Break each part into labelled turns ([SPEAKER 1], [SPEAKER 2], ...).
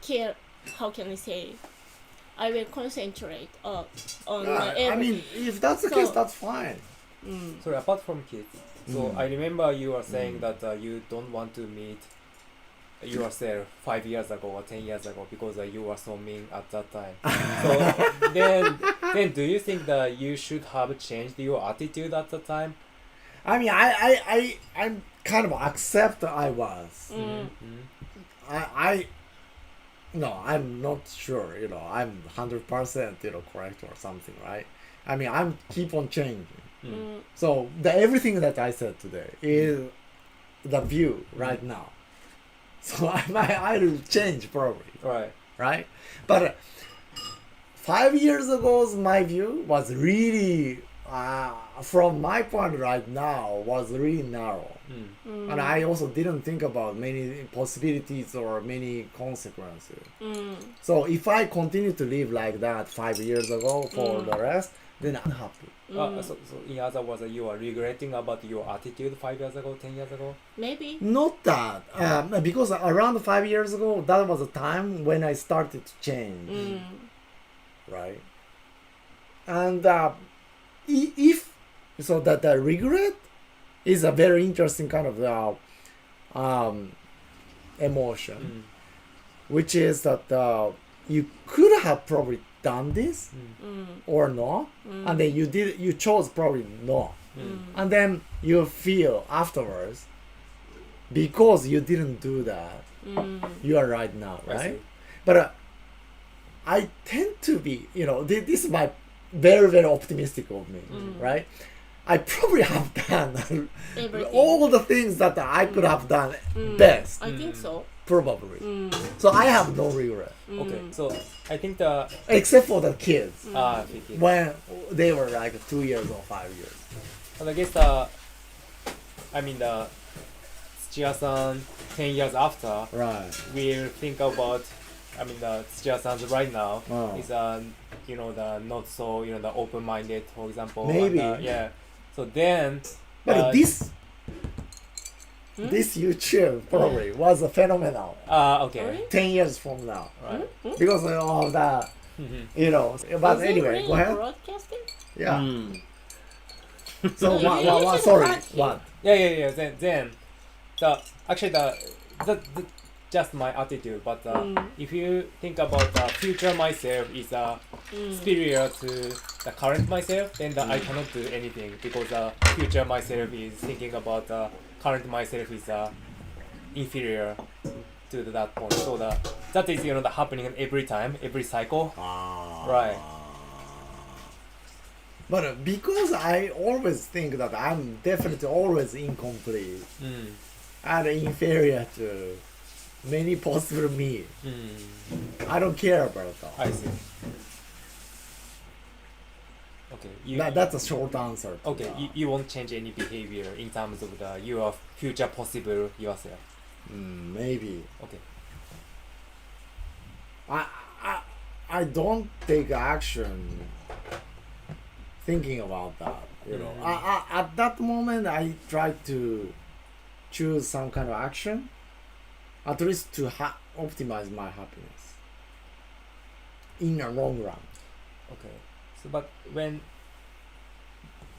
[SPEAKER 1] care. How can I say? I will concentrate uh, on
[SPEAKER 2] Yeah,
[SPEAKER 1] my every.
[SPEAKER 2] I mean, if that's the
[SPEAKER 1] So-
[SPEAKER 2] case, that's fine.
[SPEAKER 1] mm,
[SPEAKER 3] Sorry, apart from kids, so
[SPEAKER 2] Mm.
[SPEAKER 3] I remember you were saying
[SPEAKER 2] Mm.
[SPEAKER 3] that uh, you don't want to meet yourself five years ago or ten years ago because uh, you were so mean at that time. so then, then do you think that you should have changed your attitude at the time?
[SPEAKER 2] I mean, I, I, I, I'm kind of accept that I was.
[SPEAKER 1] mm,
[SPEAKER 3] Mhm.
[SPEAKER 2] I, I, no, I'm not sure. You know, I'm hundred percent, you know, correct or something, right? I mean, I'm keep on changing.
[SPEAKER 3] Mm.
[SPEAKER 1] mm,
[SPEAKER 2] So the everything that I said today is the view right now. So I might I will change probably,
[SPEAKER 3] Right.
[SPEAKER 2] right? But uh, five years ago's my view was really, uh, from my point right now, was really narrow.
[SPEAKER 3] Mm.
[SPEAKER 1] mm,
[SPEAKER 2] And I also didn't think about many possibilities or many consequences.
[SPEAKER 1] mm,
[SPEAKER 2] So if I continue to live like that five years ago for
[SPEAKER 1] Mm.
[SPEAKER 2] the rest, then I'm happy.
[SPEAKER 3] Uh,
[SPEAKER 1] mm.
[SPEAKER 3] so, so in other words, uh, you are regretting about your attitude five years ago, ten years ago.
[SPEAKER 1] maybe.
[SPEAKER 2] Not that, um, because around five years ago, that was a time when I started to change,
[SPEAKER 1] Mm,
[SPEAKER 2] right? And uh, i- if so, that the regret is a very interesting kind of uh, um, emotion,
[SPEAKER 3] Mm.
[SPEAKER 2] which is that uh, you could have probably done this
[SPEAKER 1] mm,
[SPEAKER 2] or not,
[SPEAKER 1] mm,
[SPEAKER 2] and then you did, you chose probably not,
[SPEAKER 3] Mm.
[SPEAKER 1] mm,
[SPEAKER 2] and then you feel afterwards because you didn't do that
[SPEAKER 1] mm,
[SPEAKER 2] you are right now,
[SPEAKER 3] I see.
[SPEAKER 2] right? But uh, I tend to be, you know, thi- this is my very, very optimistic of me,
[SPEAKER 1] Mm.
[SPEAKER 2] right? I probably have done
[SPEAKER 1] everything.
[SPEAKER 2] all the things that I could have done
[SPEAKER 1] Mm,
[SPEAKER 2] best,
[SPEAKER 1] I think so.
[SPEAKER 2] probably.
[SPEAKER 1] Mm,
[SPEAKER 2] So I have no regret,
[SPEAKER 3] Okay,
[SPEAKER 1] mm,
[SPEAKER 3] so I think the
[SPEAKER 2] except for the kids
[SPEAKER 3] uh,
[SPEAKER 1] Mm.
[SPEAKER 3] okay.
[SPEAKER 2] when they were like two years or five years.
[SPEAKER 3] And I guess the, I mean the, Tsuchiya-san ten years after
[SPEAKER 2] Right.
[SPEAKER 3] will think about, I mean the Tsuchiya-san's right now
[SPEAKER 2] Oh.
[SPEAKER 3] is uh, you know the not so you know the open-minded for example.
[SPEAKER 2] Maybe.
[SPEAKER 3] and, uh, yeah. So then.
[SPEAKER 2] But
[SPEAKER 3] uh,
[SPEAKER 2] this,
[SPEAKER 1] Hmm?
[SPEAKER 2] this YouTube probably was a phenomenal
[SPEAKER 3] Uh, okay.
[SPEAKER 1] Sorry?
[SPEAKER 2] 10 years from now
[SPEAKER 3] Right.
[SPEAKER 1] mm.
[SPEAKER 2] because of all that,
[SPEAKER 3] Mhm.
[SPEAKER 2] you know. But
[SPEAKER 1] Is it
[SPEAKER 2] anyway,
[SPEAKER 1] really
[SPEAKER 2] go ahead.
[SPEAKER 1] Broadcasting?
[SPEAKER 2] Yeah.
[SPEAKER 3] Hmm.
[SPEAKER 1] No,
[SPEAKER 2] So
[SPEAKER 1] you-
[SPEAKER 2] what?
[SPEAKER 1] you
[SPEAKER 2] What? what
[SPEAKER 1] should
[SPEAKER 2] sorry.
[SPEAKER 1] ask him.
[SPEAKER 2] What?
[SPEAKER 3] Yeah, yeah, yeah. Then, then, the actually the, the, the just my attitude. But uh,
[SPEAKER 1] Mm.
[SPEAKER 3] if you think about the future myself is uh,
[SPEAKER 1] Mm,
[SPEAKER 3] superior to the current myself, then the, I
[SPEAKER 2] Mm.
[SPEAKER 3] cannot do anything because the future myself is thinking about the current myself is uh, inferior to that point. So the that is you know the happening every time, every cycle.
[SPEAKER 2] Ah.
[SPEAKER 1] Ah.
[SPEAKER 3] Right.
[SPEAKER 2] But uh, because I always think that I'm definitely always incomplete
[SPEAKER 1] Hmm.
[SPEAKER 3] Mm.
[SPEAKER 2] and inferior to many possible me,
[SPEAKER 3] Mm.
[SPEAKER 2] I don't care about that.
[SPEAKER 3] I see. Okay. You,
[SPEAKER 2] That- that's a short answer. to
[SPEAKER 3] Okay,
[SPEAKER 2] that.
[SPEAKER 3] you, you won't change any behavior in terms of the your future possible yourself.
[SPEAKER 2] Mm, maybe.
[SPEAKER 3] Okay.
[SPEAKER 2] I, I I don't take action thinking about that. You know,
[SPEAKER 3] Mhm.
[SPEAKER 2] I, I, at that moment, I try to choose some kind of action, at least to ha- optimize my happiness in the long run.
[SPEAKER 3] Okay. So, but when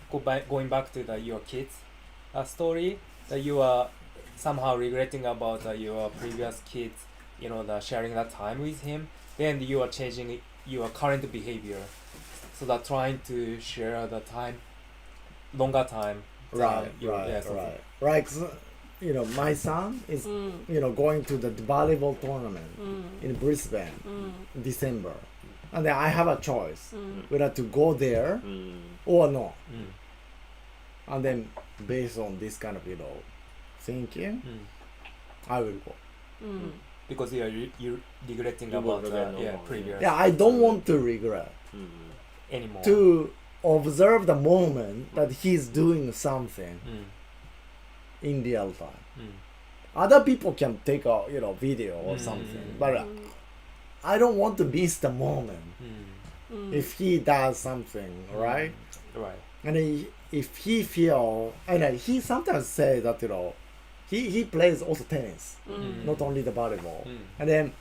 [SPEAKER 3] go back, going back to the your kids uh, story, that you are somehow regretting about uh, your previous kids, you know, the sharing that time with him, then you are changing your current behavior, so that trying to share the time, longer time.
[SPEAKER 2] Right,
[SPEAKER 3] you-
[SPEAKER 2] right,
[SPEAKER 3] yes, okay.
[SPEAKER 2] right. Right. 'cause, you know, my son is
[SPEAKER 1] mm,
[SPEAKER 2] you know going to the volleyball tournament
[SPEAKER 1] mm,
[SPEAKER 2] in Brisbane
[SPEAKER 1] mm,
[SPEAKER 2] in December, and then I have a choice
[SPEAKER 1] mm,
[SPEAKER 2] whether to go there or not.
[SPEAKER 3] Mm,
[SPEAKER 2] and then based on this kind of you know thinking
[SPEAKER 3] mm.
[SPEAKER 2] i will go
[SPEAKER 1] mm.
[SPEAKER 3] Because you are re- you regretting
[SPEAKER 4] You will
[SPEAKER 3] about the
[SPEAKER 4] regret no
[SPEAKER 3] yeah
[SPEAKER 4] more, yeah.
[SPEAKER 3] previous.
[SPEAKER 2] yeah i don't want to regret
[SPEAKER 3] anymore.
[SPEAKER 2] to observe the moment that he's doing something
[SPEAKER 3] Mm,
[SPEAKER 2] in real time
[SPEAKER 3] mm,
[SPEAKER 2] other people can take a you know video or
[SPEAKER 3] Mm.
[SPEAKER 2] something but uh, i don't want to miss the moment
[SPEAKER 3] mm,
[SPEAKER 1] Mm,
[SPEAKER 2] if he does something right
[SPEAKER 3] right.
[SPEAKER 2] and he, if he feel and uh, he sometimes say that you know he he plays also tennis
[SPEAKER 1] mm,
[SPEAKER 2] Hmm. not only the volleyball
[SPEAKER 3] Mm,
[SPEAKER 2] and then